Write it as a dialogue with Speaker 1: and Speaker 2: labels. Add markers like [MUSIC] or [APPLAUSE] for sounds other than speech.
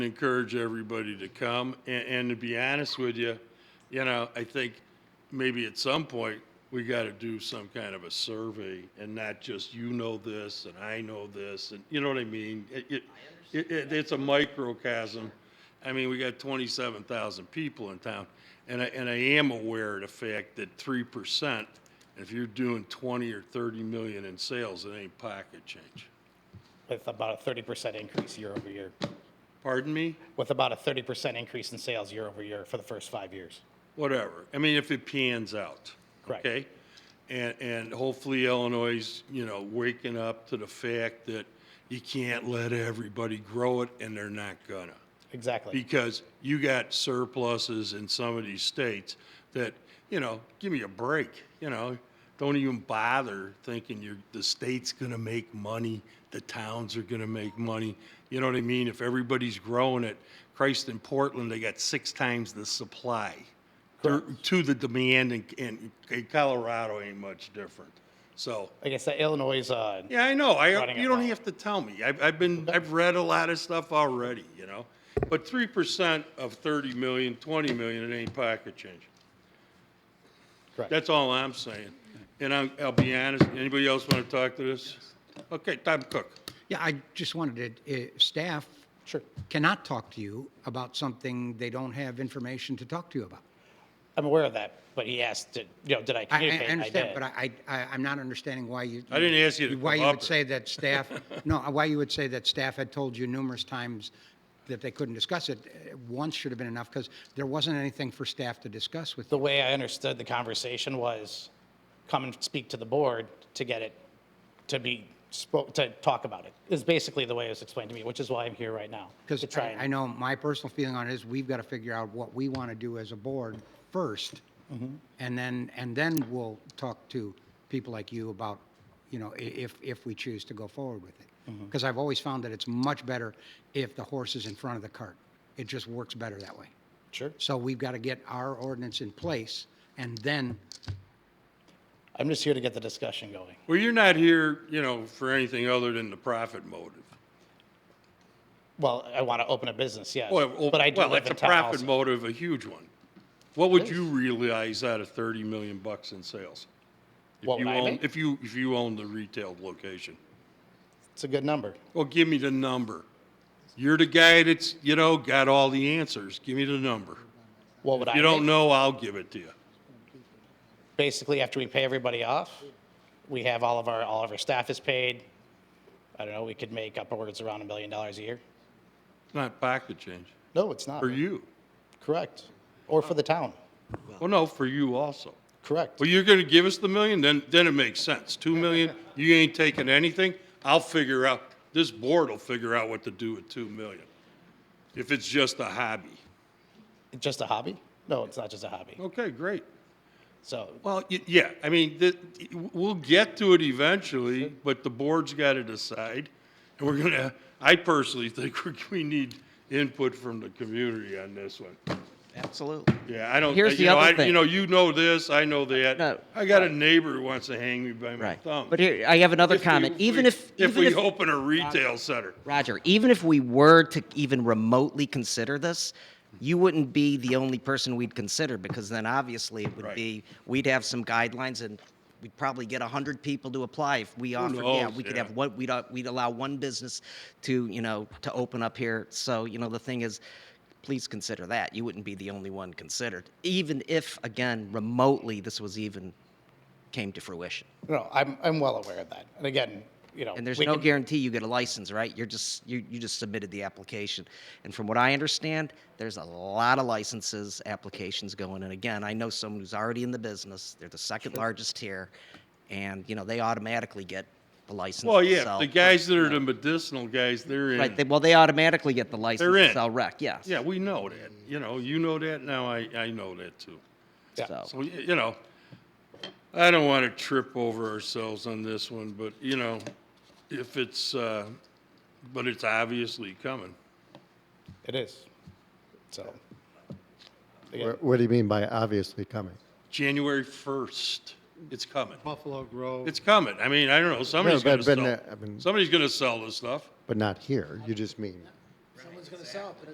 Speaker 1: encourage everybody to come. And, and to be honest with you, you know, I think maybe at some point, we got to do some kind of a survey and not just you know this and I know this and, you know what I mean? It- It, it, it- it's a microcosm. I mean, we got twenty-seven thousand people in town. And I, and I am aware of the fact that three percent, if you're doing twenty or thirty million in sales, it ain't pocket change.
Speaker 2: with about a thirty percent increase year over year,
Speaker 1: Pardon me?
Speaker 2: with about a thirty percent increase in sales year over year for the first five years.
Speaker 1: whatever. I mean, if it pans out.
Speaker 2: Correct.
Speaker 1: Okay? And, and hopefully Illinois, is, you know, waking up to the fact that you can't let everybody grow it and they're not gonna.
Speaker 2: Exactly.
Speaker 1: Because you got surpluses in some of these states that, you know, give me a break, you know? Don't even bother thinking you're, the state's gonna make money, the towns are gonna make money. You know what I mean? If everybody's growing it, Christ in Portland, they got six times the supply to to the demand and, and and Colorado ain't much different. So,
Speaker 2: Like I said, Illinois is, uh,
Speaker 1: yeah, I know. I,
Speaker 2: Running it
Speaker 1: you don't
Speaker 2: wrong.
Speaker 1: have to tell me. I've, I've been, I've read a lot of stuff already, you know? But three percent of thirty million, twenty million, it ain't pocket change.
Speaker 2: Correct.
Speaker 1: That's all I'm saying. And I'm, I'll be honest, anybody else want to talk to this? Okay, Tom Cook.
Speaker 3: Yeah, I just wanted to, uh, staff
Speaker 2: sure.
Speaker 3: cannot talk to you about something they don't have information to talk to you about.
Speaker 2: I'm aware of that, but he asked, did- you know, did [LAUGHS] I
Speaker 3: I, I
Speaker 2: communicate?
Speaker 3: understand,
Speaker 2: did.
Speaker 3: but I, I, I'm not understanding why you.
Speaker 1: I didn't ask you to
Speaker 3: Why
Speaker 1: come
Speaker 3: you
Speaker 1: up
Speaker 3: would
Speaker 1: [LAUGHS]
Speaker 3: say that staff, no, why you would say that staff had told you numerous times that they couldn't discuss it. Uh, Once should have been enough, because there wasn't anything for staff to discuss with
Speaker 2: The
Speaker 3: you.
Speaker 2: way I understood the conversation was come and speak to the board to get it, to be, spoke, to talk about it, is basically the way it was explained to me, which is why I'm here right now.
Speaker 3: Because
Speaker 2: to try
Speaker 3: I
Speaker 2: and-
Speaker 3: I know my personal feeling on it is, we've got to figure out what we want to do as a board first.
Speaker 2: Mm-hmm.
Speaker 3: And then, and then we'll talk to people like you about, you know, i- if, if we choose to go forward with it.
Speaker 2: Mm-hmm.
Speaker 3: Because I've always found that it's much better if the horse is in front of the cart. It just works better that way.
Speaker 2: Sure.
Speaker 3: So we've got to get our ordinance in place and then,
Speaker 2: I'm just here to get the discussion going.
Speaker 1: Well, you're not here, you know, for anything other than the profit motive.
Speaker 2: Well, I want to open a business, yes.
Speaker 1: Well, well,
Speaker 2: But I do
Speaker 1: well,
Speaker 2: live
Speaker 1: that's
Speaker 2: in
Speaker 1: a
Speaker 2: town
Speaker 1: profit
Speaker 2: also.
Speaker 1: motive, a huge one. What would you realize out of thirty million bucks in sales? If
Speaker 2: What
Speaker 1: you
Speaker 2: would I
Speaker 1: own-
Speaker 2: make?
Speaker 1: If you, if you own the retail location.
Speaker 2: It's a good number.
Speaker 1: Well, give me the number. You're the guy that's, you know, got all the answers. Give me the number.
Speaker 2: What would I?
Speaker 1: You don't
Speaker 2: make?
Speaker 1: know, I'll give it to you.
Speaker 2: Basically, after we pay everybody off, we have all of our, all of our staff is paid. I don't know, we could make upwards around a million dollars a year.
Speaker 1: It's not pocket change.
Speaker 2: No, it's not.
Speaker 1: For you.
Speaker 2: Correct. Or for the town.
Speaker 1: Well, no, for you also.
Speaker 2: Correct.
Speaker 1: Oh. Well, you're gonna give us the million, then, then it makes sense. Two [LAUGHS] million, you ain't taking anything. I'll figure out, this board will figure out what to do with two million. If it's just a hobby.
Speaker 2: Just a hobby? No, it's not just a hobby.
Speaker 1: Okay, great.
Speaker 2: So,
Speaker 1: Well, y- yeah, I mean, the, we'll get to it eventually, but the board's got to decide. And we're gonna, I personally think we- we need input from the community on this one.
Speaker 4: Absolutely.
Speaker 1: Yeah, I don't,
Speaker 4: Here's the
Speaker 1: you know,
Speaker 4: other
Speaker 1: I,
Speaker 4: thing.
Speaker 1: you know, you know this, I know
Speaker 4: No.
Speaker 1: that. I got a neighbor who wants to hang me by my
Speaker 4: Right.
Speaker 1: thumb.
Speaker 4: But here, I have another
Speaker 1: If we-
Speaker 4: comment. Even if,
Speaker 1: If
Speaker 4: even
Speaker 1: we
Speaker 4: if,
Speaker 1: open a retail center.
Speaker 4: Roger, even if we were to even remotely consider this, you wouldn't be the only person we'd consider because then obviously it would
Speaker 1: Right.
Speaker 4: be we'd have some guidelines and we'd probably get hundred people to apply if we offered. yeah,
Speaker 1: knows,
Speaker 4: we could
Speaker 1: yeah.
Speaker 4: have what we'd uh, we'd allow one business to you know to open up here. So you know the thing is. Please consider that. You wouldn't be the only one considered, even if, again, remotely this was even came to fruition.
Speaker 2: no, I'm, I'm well aware of that. And again, you know.
Speaker 4: And there's
Speaker 2: we
Speaker 4: no
Speaker 2: can-
Speaker 4: guarantee you get a license, right? You're just, you, you just submitted the application. And from what I understand, there's a lot of licenses, applications going. And again, I know someone who's already in the business. They're the second largest here. And, you know, they automatically get the license.
Speaker 1: Well,
Speaker 4: to
Speaker 1: yeah,
Speaker 4: sell-
Speaker 1: the guys that are the medicinal guys, they're in.
Speaker 4: Right, they, well, they automatically get the license
Speaker 1: They're in.
Speaker 4: to sell rec, yes.
Speaker 1: Yeah, we know that. You know, you know that, now I, I know that too.
Speaker 2: Yeah.
Speaker 4: So,
Speaker 1: So, y- you know, I don't want to trip over ourselves on this one, but, you know, if it's, uh, but it's obviously coming.
Speaker 2: It is. So. again,
Speaker 5: Wha- What do you mean by obviously coming?
Speaker 1: January 1st, it's coming.
Speaker 6: Buffalo Grove.
Speaker 1: It's coming. I mean, I don't know, somebody's
Speaker 5: No,
Speaker 1: going to
Speaker 5: but- but, uh, I
Speaker 1: sell,
Speaker 5: mean-
Speaker 1: somebody's going to sell this stuff.
Speaker 5: But not here, you just mean